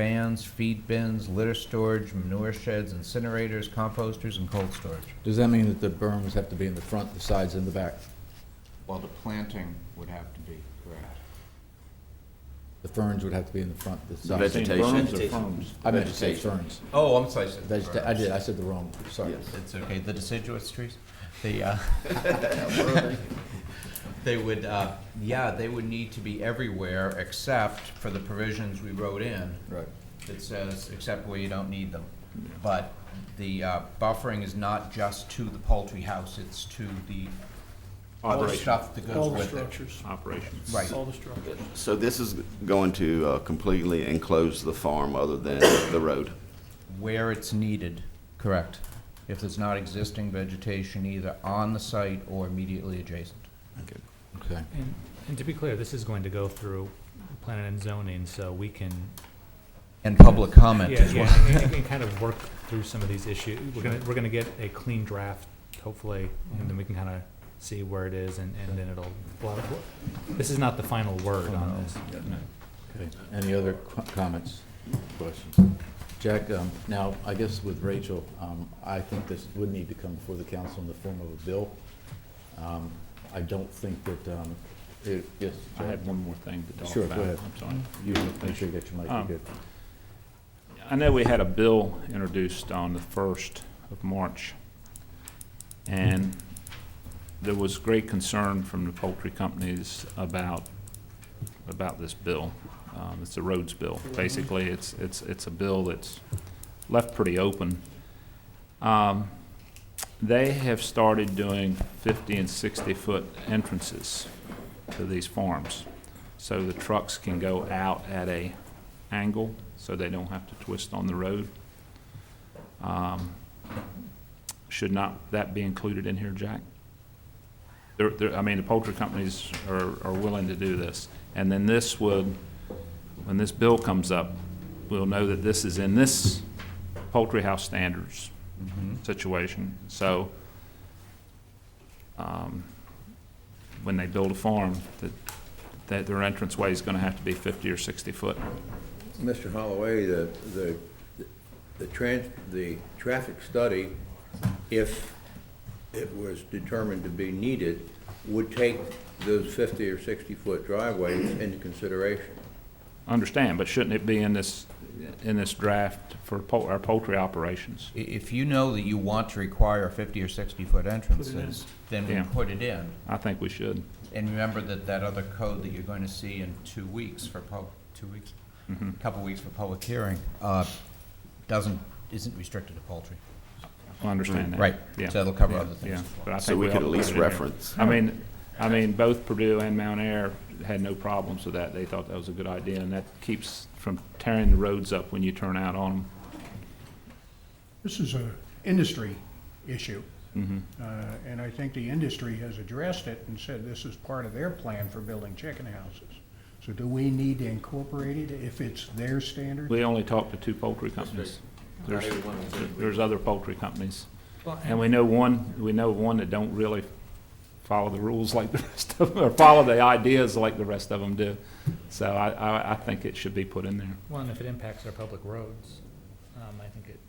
fans, feed bins, litter storage, manure sheds, incinerators, composters, and cold storage. Does that mean that the berms have to be in the front, the sides, and the back? Well, the planting would have to be, correct. The ferns would have to be in the front, the sides? Vegetation. Berms or Vegetation. ferns? I meant to say ferns. Oh, I'm sorry. I said- Vegeta- I did, I said the wrong, sorry. Yes. It's okay, the deciduous trees, the, uh, they would, uh, yeah, they would need to be everywhere except for the provisions we wrote in Right. that says, except where you don't need them. But the uh, buffering is not just to the poultry house, it's to the other Operation. stuff that goes All the with it. structures, Operations. Right. all the structures. So this is going to uh, completely enclose the farm other than the road? Where it's needed, correct. If there's not existing vegetation either on the site or immediately adjacent. Okay. And, and to be clear, this is going to go through planning and zoning, so we can. And public comment Yeah, as well. yeah, and- and kind of work through some of these issues. We're gonna, we're gonna get a clean draft, hopefully, and then we can kind of see where it is and, and then it'll. blah, blah, blah. This is not the final word on Oh, this. Okay. Any other qu- comments, questions? Jack, um, now, I guess with Rachel, um, I think this would need to come before the council in the form of a bill. Um, I don't think that, um, it, yes, I Jack, had one more thing to talk Sure, about. go ahead. I'm sorry. you make sure you get your mic, you're Um, good. I know we had a bill introduced on the first of March, and there was great concern from the poultry companies about, about this bill. Um, it's a roads bill. Basically, it's, it's, it's a bill that's left pretty open. Um, they have started doing fifty and sixty-foot entrances to these farms. So the trucks can go out at a angle, so they don't have to twist on the road. Um, Should not that be included in here, Jack? There, there, I mean, the poultry companies are, are willing to do this. And then this would, when this bill comes up, we'll know that this is in this poultry house standards situation. So, um, when they build a farm, that, that their entranceway is gonna have to be fifty or sixty foot. Mr. Holloway, the, the, the trans, the traffic study, if it was determined to be needed, would take those fifty or sixty-foot driveways into consideration. Understand, but shouldn't it be in this, in this draft for pol- our poultry operations? I- If you know that you want to require fifty or sixty-foot entrances, then we Yeah. put it in. I think we should. And remember that that other code that you're going to see in two weeks for pub, two weeks, a couple weeks for public hearing, uh, doesn't, isn't restricted to poultry. I understand that. Right, Yeah. so it'll cover Yeah, other things. yeah, but I So think we ought could to at put least it in here. reference. I mean, I mean, both Purdue and Mount Air had no problems with that. They thought that was a good idea, and that keeps from tearing the roads up when you turn out on This is an industry issue, them. uh, and I think the industry has addressed it and said this is part of their plan for building chicken houses. So do we need to incorporate it if it's their hmm standard? We only talked to two poultry companies. There's, there's other poultry companies. And we know one, we know one that don't really follow the rules like the rest of them, or follow the ideas like the rest of them do. So I, I, I think it should be put in there. Well, and if it impacts our public roads, um, I think it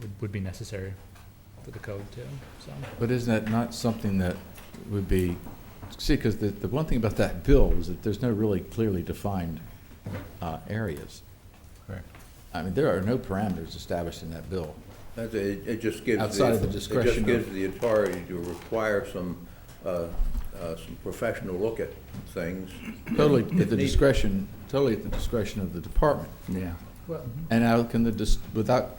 would, would be necessary for the code too, so. But isn't that not something that would be, see, because the, the one thing about that bill is that there's no really clearly defined uh, areas. Correct. I mean, there are no parameters established in that bill. That's, it, it just gives. Outside of the It discretion just of- gives the authority to require some, uh, uh, some professional look at things. Totally at the Need- discretion, totally at the discretion of the department. Yeah. And how can the, dis- without,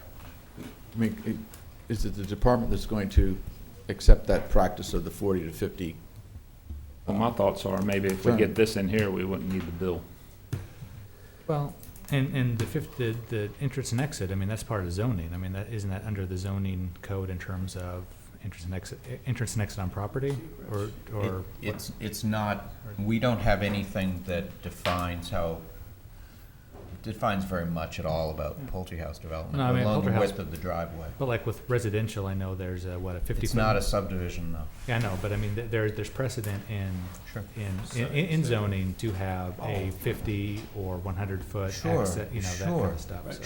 I mean, i- is it the department that's going to accept that practice of the 40 to 50? Well, my thoughts are maybe if we get this in here, we wouldn't need the bill. Well, and, and the fifth, the, the entrance and exit, I mean, that's part of zoning. I mean, that, isn't that under the zoning code in terms of entrance and exit, eh, entrance and exit on property? Or, It- or, It's, it's not, we don't have anything that defines how defines very much at all about poultry house development, Hmm. No, I mean, along the poultry house- width of the driveway. But like with residential, I know there's a, what, a fifty foot? It's not a subdivision, though. Yeah, I know, but I mean, th- there, there's precedent in, Sure. in, in- in zoning to have a fifty or one hundred foot Sure, access, you know, that kind sure. of stuff, so.